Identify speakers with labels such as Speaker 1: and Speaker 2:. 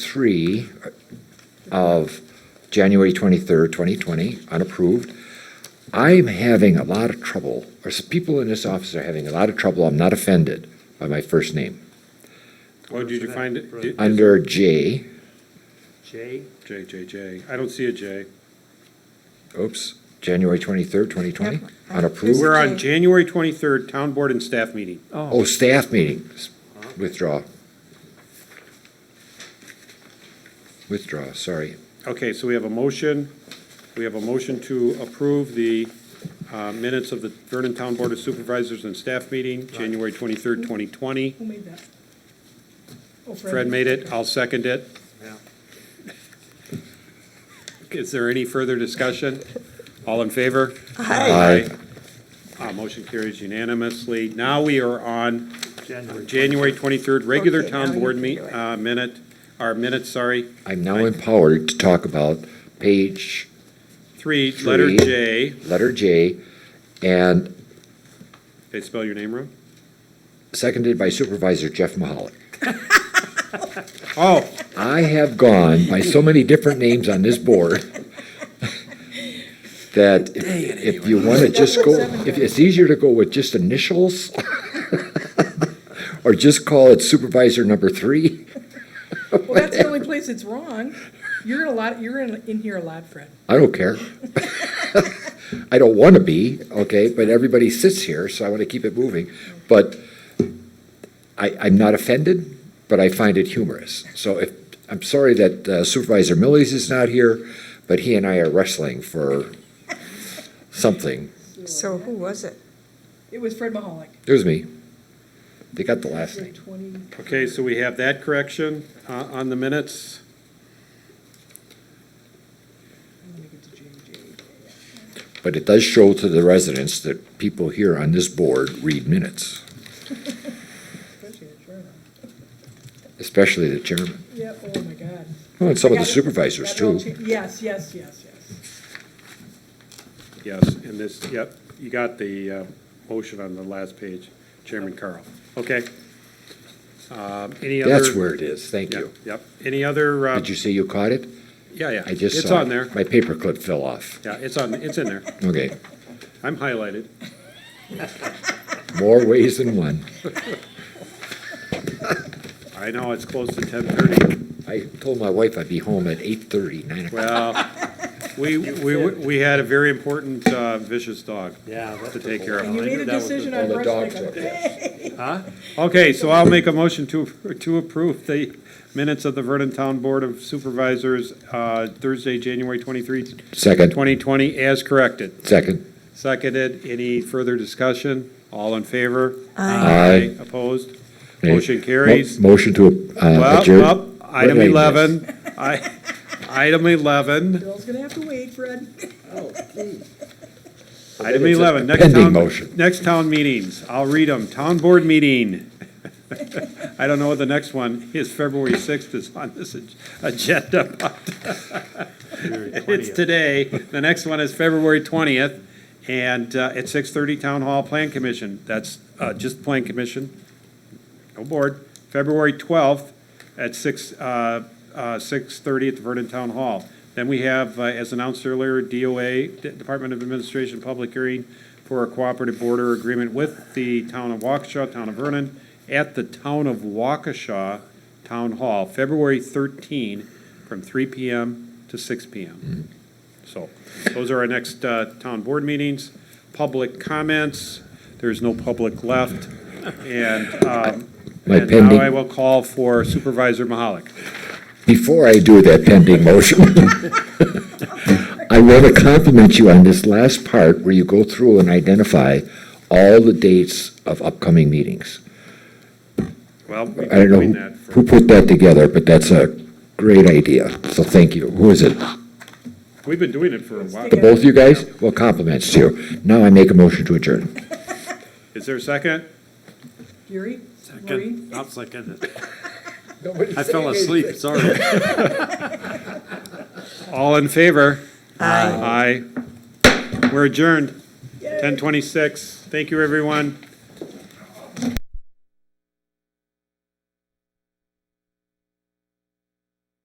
Speaker 1: three of January twenty-third, twenty twenty, unapproved. I'm having a lot of trouble, or s- people in this office are having a lot of trouble, I'm not offended by my first name.
Speaker 2: Oh, did you find it? Did-
Speaker 1: Under J,
Speaker 3: J,
Speaker 2: J, J, J. I don't see a J.
Speaker 1: oops, January twenty-third, twenty twenty, unapproved.
Speaker 2: We're on January twenty-third, town board and staff meeting.
Speaker 1: Oh, staff meeting, S- withdraw. Withdraw, sorry.
Speaker 2: Okay, so we have a motion, we have a motion to approve the uh, minutes of the Vernon Town Board of Supervisors and Staff Meeting, January twenty-third, twenty twenty.
Speaker 4: Who made that? Oh,
Speaker 2: Fred made it, I'll second it.
Speaker 3: Yeah.
Speaker 2: Is there any further discussion? All in favor?
Speaker 1: Aye.
Speaker 2: Uh, Motion carries unanimously. Now we are on
Speaker 3: January.
Speaker 2: January twenty-third, regular
Speaker 5: Okay, now
Speaker 2: town
Speaker 5: you
Speaker 2: board
Speaker 5: can
Speaker 2: meet,
Speaker 5: do it.
Speaker 2: uh, minute, our minutes, sorry,
Speaker 1: I'm now empowered to talk about page
Speaker 2: three, letter
Speaker 1: Three.
Speaker 2: J.
Speaker 1: letter J, and
Speaker 2: Did I spell your name wrong?
Speaker 1: seconded by Supervisor Jeff Mahalik.
Speaker 2: Oh,
Speaker 1: I have gone by so many different names on this board that if- if you want to just go, if it's easier to go with just initials or just call it Supervisor Number Three,
Speaker 4: Well, that's the only place it's wrong. You're in a lot, you're in, in here a lot, Fred.
Speaker 1: I don't care. I don't want to be, okay, but everybody sits here, so I want to keep it moving. But I, I'm not offended, but I find it humorous. So if, I'm sorry that uh, Supervisor Millies is not here, but he and I are wrestling for something.
Speaker 5: So who was it?
Speaker 4: It was Fred Mahalik.
Speaker 1: It was me. They got the last name.
Speaker 4: Twenty,
Speaker 2: okay, so we have that correction uh, on the minutes.
Speaker 4: I'm gonna get to J J.
Speaker 1: But it does show to the residents that people here on this board read minutes,
Speaker 4: especially the chairman.
Speaker 1: especially the chairman.
Speaker 4: Yeah, oh my God.
Speaker 1: Well, And some of
Speaker 4: I
Speaker 1: the
Speaker 4: got it.
Speaker 1: supervisors
Speaker 4: Got it all
Speaker 1: too.
Speaker 4: cha- Yes, yes, yes, yes.
Speaker 2: Yes, and this, yep, you got the uh, motion on the last page, Chairman Carl. Okay. Um, Any other?
Speaker 1: That's where it is. Thank
Speaker 2: Yep,
Speaker 1: you.
Speaker 2: Yep. Any other, uh,
Speaker 1: Did you say you caught it?
Speaker 2: yeah, yeah.
Speaker 1: I just saw.
Speaker 2: It's
Speaker 1: it.
Speaker 2: on there.
Speaker 1: My paperclip fell off.
Speaker 2: Yeah, it's on, it's in there.
Speaker 1: Okay,
Speaker 2: I'm highlighted.
Speaker 1: more ways than one.
Speaker 2: I know it's close to ten thirty.
Speaker 1: I told my wife I'd be home at eight thirty, nine o'clock.
Speaker 2: Well, we, we, we had a very important uh, vicious dog
Speaker 3: Yeah. that's
Speaker 2: to
Speaker 3: the
Speaker 2: take care
Speaker 4: And you
Speaker 2: of.
Speaker 4: made a
Speaker 3: that was the-
Speaker 4: decision
Speaker 1: all
Speaker 4: on
Speaker 1: the
Speaker 4: wrestling.
Speaker 1: dogs are-
Speaker 4: "Eh,
Speaker 2: Okay, so I'll make a motion to, to approve the minutes of the Vernon Town Board of Supervisors, uh, Thursday, January twenty-three,
Speaker 1: Second,
Speaker 2: twenty twenty, as corrected.
Speaker 1: second,
Speaker 2: Seconded. Any further discussion? All in favor?
Speaker 1: Aye.
Speaker 2: Opposed?
Speaker 1: Nay.
Speaker 2: Motion carries.
Speaker 1: Mo- Motion to uh,
Speaker 2: Well,
Speaker 1: adjourn.
Speaker 2: well, item
Speaker 1: Wait, wait,
Speaker 2: eleven, I, item eleven,
Speaker 4: Bill's gonna have to wait, Fred.
Speaker 2: item
Speaker 1: It's a
Speaker 2: eleven, next
Speaker 1: pending
Speaker 2: town,
Speaker 1: motion.
Speaker 2: next town meetings, I'll read them, town board meeting. I don't know what the next one is, February sixth is on this ag- agenda, but
Speaker 3: February
Speaker 2: it's
Speaker 3: 20th.
Speaker 2: today, the next one is February twentieth, and, uh, at six thirty, Town Hall Plan Commission, that's, uh, just Plan Commission, no board, February twelfth at six, uh, uh, six thirty at the Vernon Town Hall. Then we have, uh, as announced earlier, DOA, D- Department of Administration Public Hearing for a cooperative border agreement with the Town of Waukesha, Town of Vernon, at the Town of Waukesha Town Hall, February thirteen, from three PM to six PM. So, those are our next, uh, town board meetings. Public comments, there's no public left, and, um,
Speaker 1: My
Speaker 2: and now I
Speaker 1: pending-
Speaker 2: will call for Supervisor Mahalik.
Speaker 1: Before I do that pending motion, I want to compliment you on this last part where you go through and identify all the dates of upcoming meetings.
Speaker 2: Well, we've
Speaker 1: I
Speaker 2: been
Speaker 1: don't know
Speaker 2: doing
Speaker 1: who
Speaker 2: that for,
Speaker 1: who put that together, but that's a great idea, so thank you. Who is it?
Speaker 2: we've been doing it for a while.
Speaker 1: The both of you guys? Well, compliments to you. Now I make a motion to adjourn.
Speaker 2: Is there a second?
Speaker 4: Gary, Maureen,
Speaker 3: Second, I'll second it. I fell asleep, sorry.
Speaker 2: All in favor? Aye. Aye. We're adjourned, ten twenty-six. Thank you, everyone.